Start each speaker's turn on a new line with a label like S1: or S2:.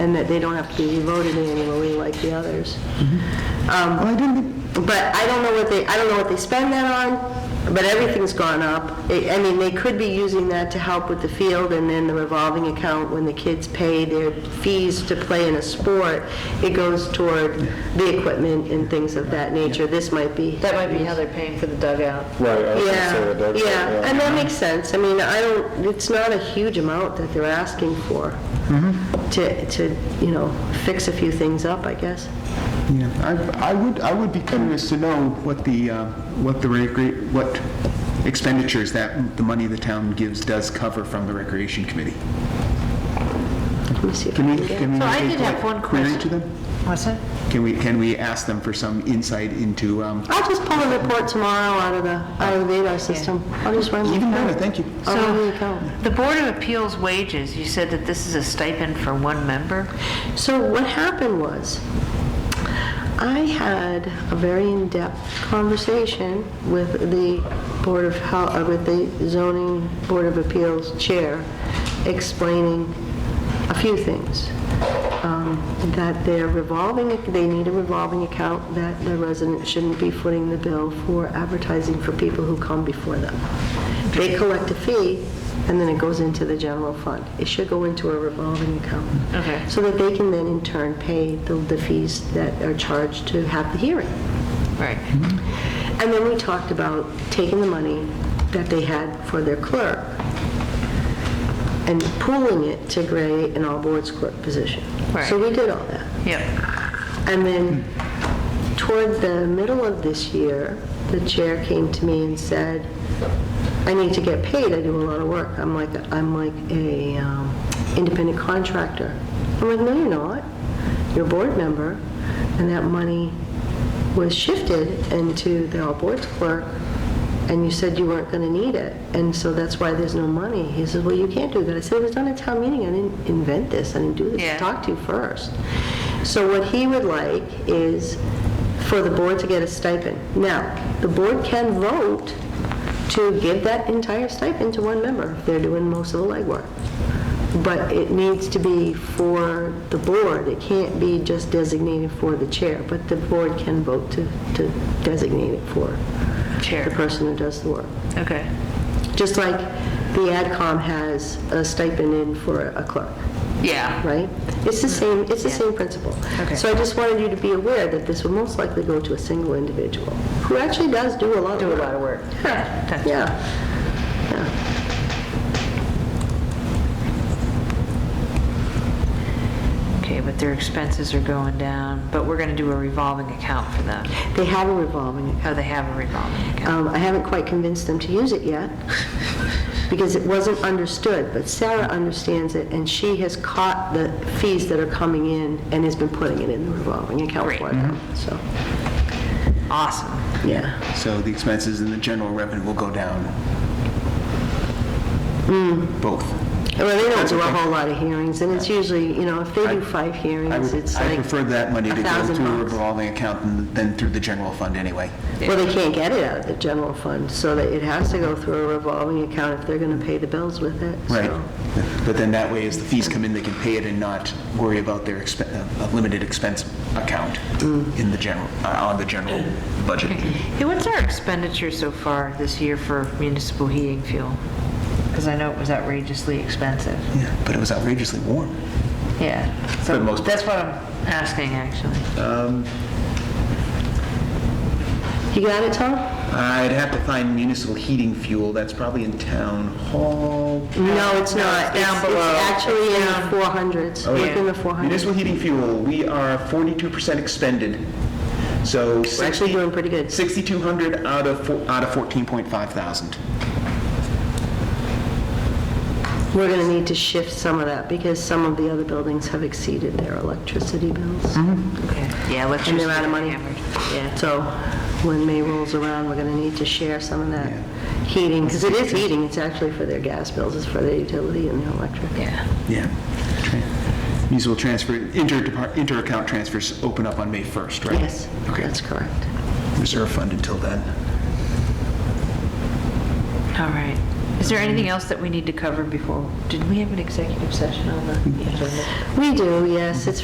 S1: and that they don't have to be voted in annually like the others. Um,
S2: Well, Oh, I didn't,
S1: But I don't know what they, I don't know what they spend that on, but everything's gone up. I I mean, they could be using that to help with the field and then the revolving account, when the kids pay their fees to play in a sport, it goes toward the equipment and things of that nature. This might be.
S3: That might be how they're paying for the dugout.
S4: Right, I was gonna say the
S1: Yeah,
S4: dugout,
S1: yeah, and that makes sense. I mean, I don't, it's not a huge amount that they're asking for to, to, you know, fix a few things up, I guess.
S2: yeah, I, I would, I would be curious to know what the, uh, what the, recre- what expenditures that the money the town gives does cover from the Recreation Committee.
S1: Let me see if I
S2: Can
S1: can
S2: we,
S1: get-
S2: can we
S3: So I
S2: make
S3: did
S2: like
S3: have one
S2: query
S3: question.
S2: to them?
S3: What's that?
S2: Can we, can we ask them for some insight into, um,
S1: I'll just pull the report tomorrow out of the, out of the radar system. I'll just run the
S2: even better,
S1: account.
S2: thank you.
S1: I'll run
S3: So-
S1: the account.
S3: The Board of Appeals wages, you said that this is a stipend for one member?
S1: So what happened was, I had a very in-depth conversation with the Board of, Hel- uh, with the zoning Board of Appeals Chair, explaining a few things. Um, That their revolving, they need a revolving account, that the resident shouldn't be footing the bill for advertising for people who come before them. They collect a fee, and then it goes into the general fund. It should go into a revolving account.
S3: Okay.
S1: So that they can then in turn pay the- the fees that are charged to have the hearing.
S3: Right.
S1: And then we talked about taking the money that they had for their clerk and pooling it to create an all-boards clerk position. So
S3: Right.
S1: we did all that.
S3: Yep.
S1: And then toward the middle of this year, the chair came to me and said, I need to get paid, I do a lot of work. I'm like, I'm like a um, independent contractor. I'm like, no, you're not, you're a board member. And that money was shifted into the all boards clerk, and you said you weren't going to need it, and so that's why there's no money. He says, well, you can't do that. I said, it was done at town meeting, I didn't invent this, I didn't do this, I
S3: Yeah.
S1: talked talk to first. So what he would like is for the board to get a stipend. Now, the board can vote to give that entire stipend to one member if they're doing most of the legwork. But it needs to be for the board. It can't be just designated for the chair, but the board can vote to, to designate it for the
S3: Chair.
S1: person who does the work.
S3: Okay.
S1: Just like the AdCom has a stipend in for a clerk
S3: Yeah.
S1: right? It's the same, it's the same principle.
S3: Okay.
S1: So I just wanted you to be aware that this will most likely go to a single individual, who actually does do a lot of work.
S3: Do a lot of work.
S1: Yeah,
S3: Yeah.
S1: yeah.
S3: Okay, but their expenses are going down, but we're going to do a revolving account for them.
S1: They have a revolving account.
S3: Oh, they have a revolving account.
S1: Um, I haven't quite convinced them to use it yet, because it wasn't understood, but Sarah understands it, and she has caught the fees that are coming in and has been putting it in the revolving account
S3: Great.
S1: for them, so,
S3: Awesome.
S1: Mm-hmm. yeah.
S2: So the expenses and the general revenue will go down.
S3: Hmm.
S2: Both.
S1: Well, they don't
S2: That's
S1: do a
S2: okay.
S1: whole lot of hearings, and it's usually, you know, if they do five
S2: I
S1: hearings,
S2: would-
S1: it's
S2: I
S1: like
S2: prefer that money to go
S1: $1,000
S2: to a revolving account than- than through the general fund anyway.
S1: Well, they can't get it out of the general fund, so that it has to go through a revolving account if they're going to pay the bills with it. so-
S2: Right. But then that way, as the fees come in, they can pay it and not worry about their expe- uh, uh, limited expense account in the general, uh, on the general budget.
S3: Hey, what's our expenditure so far this year for municipal heating fuel? Because I know it was outrageously expensive.
S2: Yeah, But it was outrageously warm.
S3: Yeah. So
S2: For the most part.
S3: That's what I'm asking, actually.
S1: You got it, Tom?
S2: I'd have to find municipal heating fuel, that's probably in town hall.
S1: No, it's not.
S3: down
S1: It's-
S3: below.
S1: It's actually in
S3: Down.
S1: the 400s, It's in the 400s.
S2: Oh, Municipal heating fuel, we are 42% expended, so 60...
S1: We're actually doing pretty good.
S2: 6,200 out of, four- out of 14.5 thousand.
S1: We're going to need to shift some of that, because some of the other buildings have exceeded their electricity bills.
S2: Mm-hmm.
S3: Yeah, electricity.
S1: And they're out of money.
S3: hammered. Yeah.
S1: So when May rolls around, we're going to need to share some of that heating, because it is heating, it's actually for their gas bills, it's for their utility and their electric.
S3: Yeah.
S2: Yeah. Tran- Municipal transfer, inter-depart- inter-account transfers open up on May 1st, right?
S1: Yes,
S2: Okay.
S1: that's correct.
S2: Reserve fund until then.
S3: All right. Is there anything else that we need to cover before, did we have an executive session on the agenda?
S1: We do, yes, it's